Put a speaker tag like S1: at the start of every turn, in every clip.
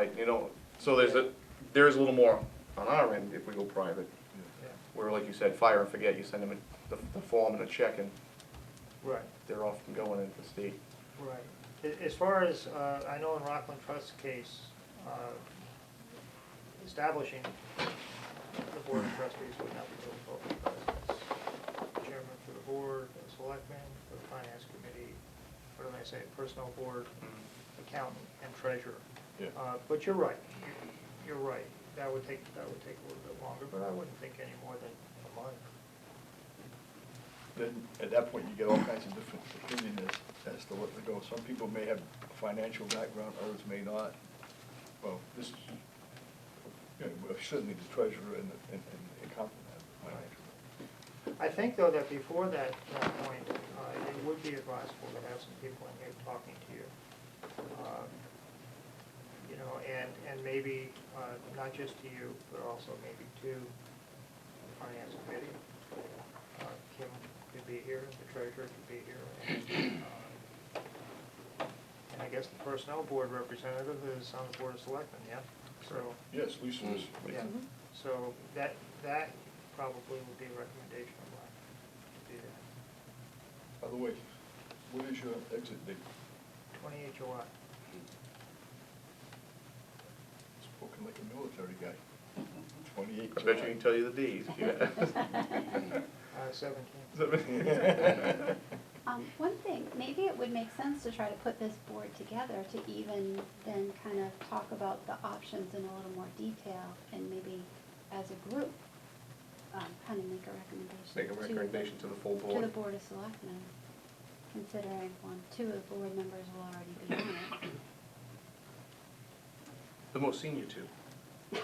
S1: Like, you know, so there's a, there is a little more on our end if we go private. Where, like you said, fire and forget, you send them a- the, the form and a check and
S2: Right,
S1: they're off and going into the state.
S2: right. A- As far as, uh, I know in Rockland Trust's case, uh, establishing the board of trustees would not be difficult because chairman for the board, the selectman, for the finance committee, what did I say, personnel board, accountant, and treasurer.
S3: Yeah.
S2: Uh, But you're right, You- you're right. That would take, that would take a little bit longer, but I wouldn't think any more than a month.
S3: Then, at that point, you get all kinds of different opinions as, as to what to go. Some people may have a financial background, others may not. Well, this, is- you know, well, certainly the treasurer and, the- and and the accountant have financial.
S2: I think, though, that before that, that point, uh, it would be advisable to have some people in here talking to you. Um, You know, and, and maybe, uh, not just to you, but also maybe to the finance committee. Uh, Kim could be here, the treasurer could be here. and, uh, And I guess the personnel board representative is on the board of selectmen, yeah? So,
S3: Yes, Lisa was.
S2: Mm, yeah, so that, that probably would be a recommendation of mine, to do that.
S3: By the way, what is your exit date?
S2: Twenty-eight July.
S3: Spoken like a military guy. Twenty-eight.
S1: I bet you can tell you the Ds.
S2: Uh, seventeen.
S1: yeah.
S4: Um, one thing, maybe it would make sense to try to put this board together to even then kind of talk about the options in a little more detail and maybe as a group, um, kind of make a recommendation.
S1: Make a
S4: to-
S1: recommendation to the full
S4: To the
S1: board.
S4: Board of Selectmen, considering one, two of the board members will already be on it.
S1: The most senior two.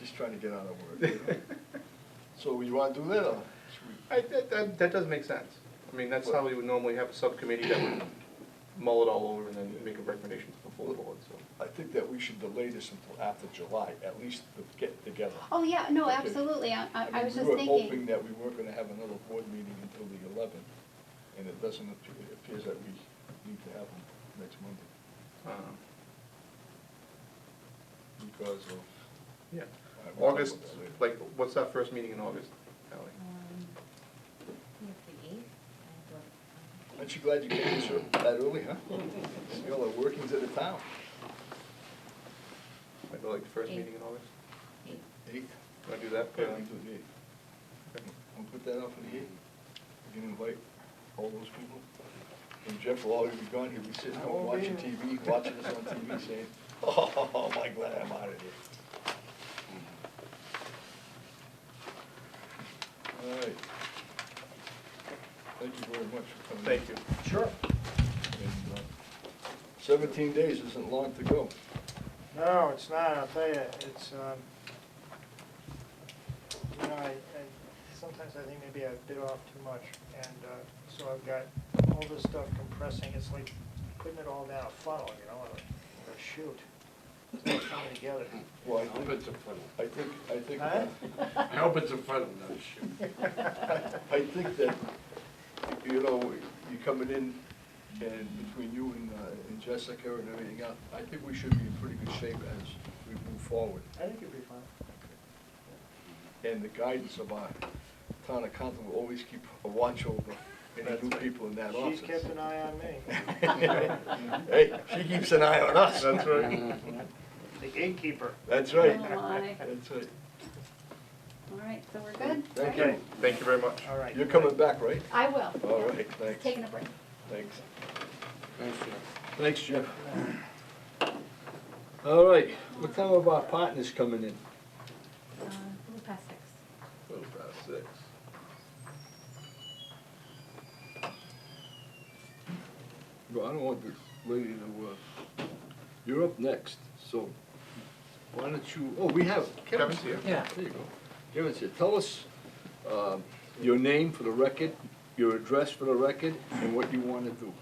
S3: Just trying to get out of work. you know? So you wanna do that, or should we?
S1: I, that, that, that does make sense. I mean, that's how we would normally have a subcommittee that would mull it all over and then make a recommendation to the full board, so.
S3: I think that we should delay this until after July, at least to get together.
S4: Oh, yeah, no,
S3: Okay.
S4: absolutely, I, I, I
S3: mean,
S4: was just thinking.
S3: We were hoping that we weren't gonna have another board meeting until the eleventh, and it doesn't appear, it appears that we need to have them next Monday
S1: um,
S3: because of.
S1: Yeah.
S3: I won't
S1: August,
S3: talk about that later.
S1: like, what's our first meeting in August, Ally?
S5: Um, I think the eighth, I thought.
S3: Aren't you glad you came this ear- that early, huh? See all the workings of the town.
S1: Maybe like the first meeting in August?
S5: um, Eighth.
S3: Eight?
S1: Want to do that?
S3: Yeah, we do the eight. I'll put that out for the eight. We can invite all those people. And Jeff will already be gone, he'll be sitting
S2: I
S3: home
S2: won't be
S3: watching
S2: here.
S3: TV, watching us on TV saying, oh, my glad I'm out of here. All right. Thank you very much for coming.
S1: Thank you.
S2: Sure.
S3: And, uh, Seventeen days isn't long to go.
S2: No, it's not, I'll tell you, it's, um, you know, I, I, sometimes I think maybe I bit off too much, and, uh, so I've got all this stuff compressing, it's like putting it all down a funnel, you know, or a- or a chute. It's all coming together.
S3: Well, I
S6: I hope
S3: think,
S6: it's a funnel.
S3: I think, I think.
S2: Huh?
S6: I hope it's a funnel, not a chute.
S3: I think that, you know, you're coming in, and between you and, uh, and Jessica and everything else, I think we should be in pretty good shape as we move forward.
S2: I think it'd be fun.
S3: And the guidance of our town accountant will always keep a watch over any new people in that office.
S2: She's kept an eye on me.
S3: Hey, she keeps an eye on us.
S1: That's right.
S2: The gatekeeper.
S3: That's right.
S4: Oh, my.
S3: That's right.
S4: All right, so we're good?
S3: Thank
S4: right?
S3: you.
S1: Thank you very much.
S2: All right.
S3: You're coming back, right?
S4: I will.
S3: All
S4: yeah.
S3: right, thanks.
S4: Taking a break.
S3: Thanks.
S6: Thanks, Jeff.
S3: Thanks, Jeff. All right, what time of our partners coming in?
S5: Uh, a little past six.
S3: Little past six.
S7: Well, I don't want this lady to, uh, you're up next, so why don't you, oh, we have, Kevin's
S1: Kevin's here.
S7: here. There you go. Kevin's here. Tell us, um, your name for the record, your address for the record, and what you wanna do.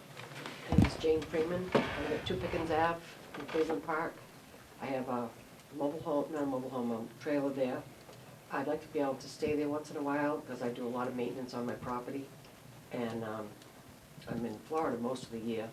S8: My name is Jane Freeman. I live at Two Pickens Ave in Cleveland Park. I have a mobile home, not a mobile home, a trailer there. I'd like to be able to stay there once in a while because I do a lot of maintenance on my property. And um, I'm in Florida most of the year,